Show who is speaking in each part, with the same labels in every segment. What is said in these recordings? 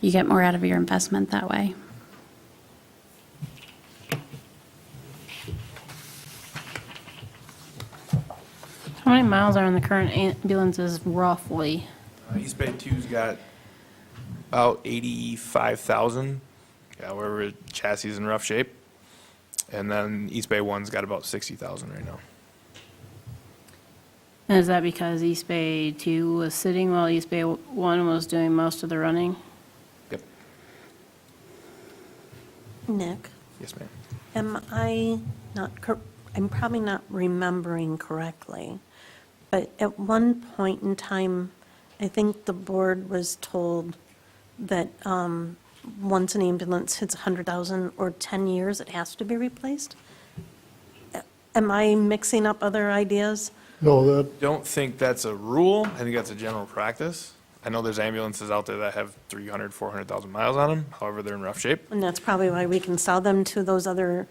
Speaker 1: You get more out of your investment that way.
Speaker 2: How many miles are on the current ambulances roughly?
Speaker 3: Uh, East Bay Two's got about eighty-five thousand. However, chassis is in rough shape, and then East Bay One's got about sixty thousand right now.
Speaker 2: And is that because East Bay 2 was sitting while East Bay 1 was doing most of the running?
Speaker 3: Yep.
Speaker 4: Nick,
Speaker 3: Yes, ma'am.
Speaker 4: am I not, cor- I'm probably not remembering correctly, but at one point in time, I think the board was told that um, once an ambulance hits 100,000 or 10 years, it has to be replaced? A- Am I mixing up other ideas?
Speaker 5: No, that,
Speaker 3: Don't think that's a rule. I think that's a general practice. I know there's ambulances out there that have 300, 400,000 miles on them. However, they're in rough shape.
Speaker 4: And that's probably why we can sell them to those other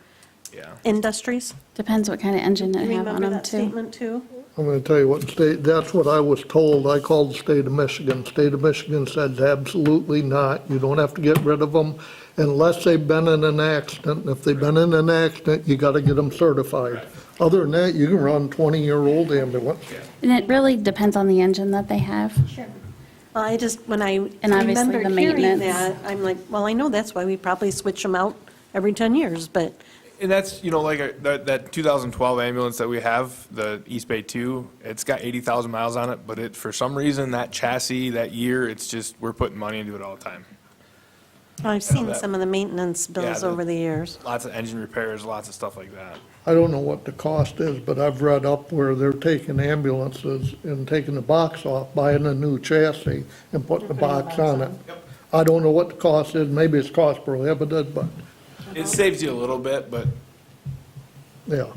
Speaker 3: Yeah.
Speaker 4: industries?
Speaker 1: Depends what kind of engine
Speaker 4: Do
Speaker 1: they
Speaker 4: you
Speaker 1: have on
Speaker 4: remember
Speaker 1: them
Speaker 4: that
Speaker 1: too.
Speaker 4: statement, too?
Speaker 5: I'm gonna tell you what state, that's what I was told. I called the state of Michigan. State of Michigan said absolutely not. You don't have to get rid of them unless they've been in an accident. If they've been in an accident, you gotta get them certified. Other than that, you can run twenty-year-old ambulance.
Speaker 1: And it really depends on the engine that they have.
Speaker 4: Well, I just, when I
Speaker 1: And obviously
Speaker 4: remembered
Speaker 1: the
Speaker 4: hearing
Speaker 1: maintenance.
Speaker 4: that, I'm like, well, I know that's why we probably switch them out every 10 years, but
Speaker 3: And that's, you know, like uh, that, that 2012 ambulance that we have, the East Bay 2, it's got 80,000 miles on it, but it, for some reason, that chassis, that year, it's just, we're putting money into it all the time.
Speaker 4: I've seen
Speaker 3: that-
Speaker 4: some of the maintenance bills
Speaker 3: the-
Speaker 4: over the years.
Speaker 3: Lots of engine repairs, lots of stuff like that.
Speaker 5: I don't know what the cost is, but I've read up where they're taking ambulances and taking the box off, buying a new chassis and putting the box on it. I don't know what the cost is. Maybe it's cost prohibitive, but,
Speaker 3: It saves you a little bit, but
Speaker 5: yeah.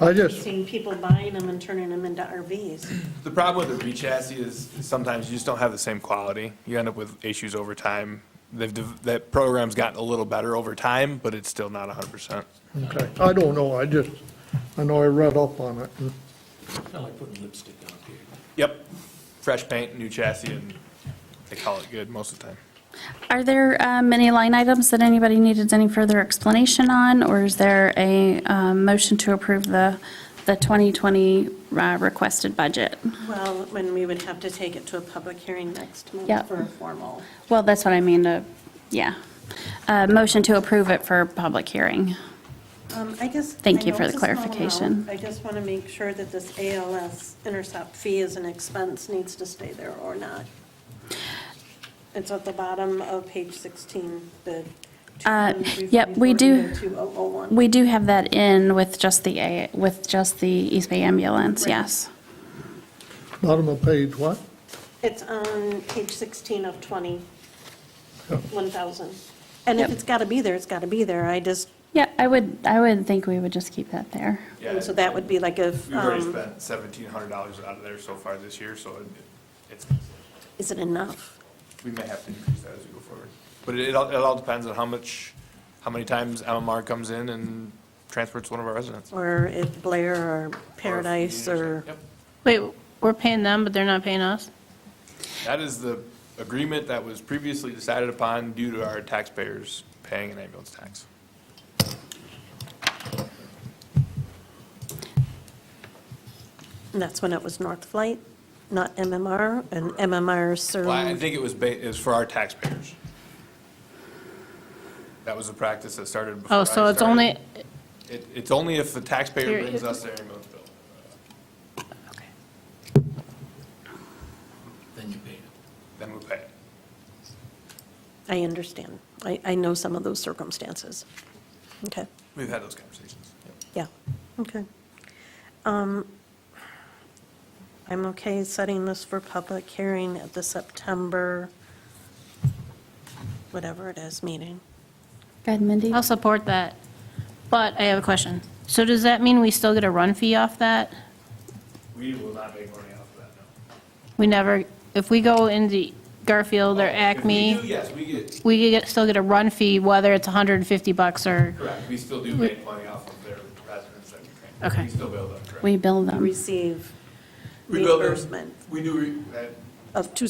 Speaker 5: I just,
Speaker 4: Seen people buying them and turning them into RVs.
Speaker 3: the problem with the re-chassis is sometimes you just don't have the same quality. You end up with issues over time. They've, dev- that program's gotten a little better over time, but it's still not 100%.
Speaker 5: Okay, I don't know, I just, I know I read up on it.
Speaker 6: Kind of like putting lipstick on a pig.
Speaker 3: Yep, fresh paint, new chassis, and they call it good most of the time.
Speaker 1: Are there um, any line items that anybody needed any further explanation on? Or is there a um, motion to approve the, the 2020 uh, requested budget?
Speaker 4: Well, when we would have to take it to a public hearing next
Speaker 1: Yep.
Speaker 4: month for a formal.
Speaker 1: Well, that's what I mean, uh, yeah. Uh, Motion to approve it for public hearing.
Speaker 4: Um, I just.
Speaker 1: Thank
Speaker 4: I
Speaker 1: you
Speaker 4: know
Speaker 1: for
Speaker 4: it's
Speaker 1: the
Speaker 4: a small amount.
Speaker 1: clarification.
Speaker 4: I just want to make sure that this ALS intercept fee as an expense needs to stay there or not. It's at the bottom of page 16, the.
Speaker 1: Uh, yep, we do-
Speaker 4: 2040,
Speaker 1: We do have that in with just the, A- with just the East Bay ambulance,
Speaker 4: Right.
Speaker 1: yes.
Speaker 5: Bottom of page, what?
Speaker 4: It's on page 16 of 20, Oh.
Speaker 5: Yeah.
Speaker 4: 1,000. And if
Speaker 1: Yep.
Speaker 4: it's got to be there, it's got to be there. I just,
Speaker 1: Yeah, I would, I would think we would just keep that there.
Speaker 4: and so that would be like if,
Speaker 3: We've already
Speaker 4: um,
Speaker 3: spent seventeen hundred dollars out of there so far this year, so it- it's,
Speaker 4: is it enough?
Speaker 3: we may have to increase that as we go forward. But it, it all, it all depends on how much, how many times MMR comes in and transports one of our residents. Or
Speaker 4: Or if Blair or Paradise or,
Speaker 3: Yep.
Speaker 2: Wait, we're paying them, but they're not paying us?
Speaker 3: That is the agreement that was previously decided upon due to our taxpayers paying an ambulance tax.
Speaker 4: and that's when it was North Flight, not MMR, and MMR
Speaker 3: Well, I
Speaker 4: served.
Speaker 3: think it was ba, it was for our taxpayers. That was a practice that started before I
Speaker 2: Oh, so it's only,
Speaker 3: started. It, it's only if the taxpayer
Speaker 2: Here,
Speaker 3: brings
Speaker 2: it-
Speaker 3: us their ambulance bill.
Speaker 6: Then you pay it.
Speaker 3: then we pay it.
Speaker 4: I understand. I, I know some of those circumstances. Okay.
Speaker 3: We've had those conversations.
Speaker 4: Yeah, okay. Um, I'm okay setting this for public hearing at the September, whatever it is, meeting.
Speaker 1: Go ahead, Mindy.
Speaker 2: I'll support that. But I have a question. So does that mean we still get a run fee off that?
Speaker 3: We will not make money off of that, no.
Speaker 2: We never, if we go into Garfield or
Speaker 3: Oh, If we do,
Speaker 2: Acme,
Speaker 3: yes, we get,
Speaker 2: we get, still get a run fee, whether it's 150 bucks or,
Speaker 3: correct, we still do make money off of their residents that we train.
Speaker 2: Okay.
Speaker 3: We still bill them, correct.
Speaker 1: We build them.
Speaker 4: Receive
Speaker 3: We bill them.
Speaker 4: reimbursement
Speaker 3: We do, re- that
Speaker 4: of two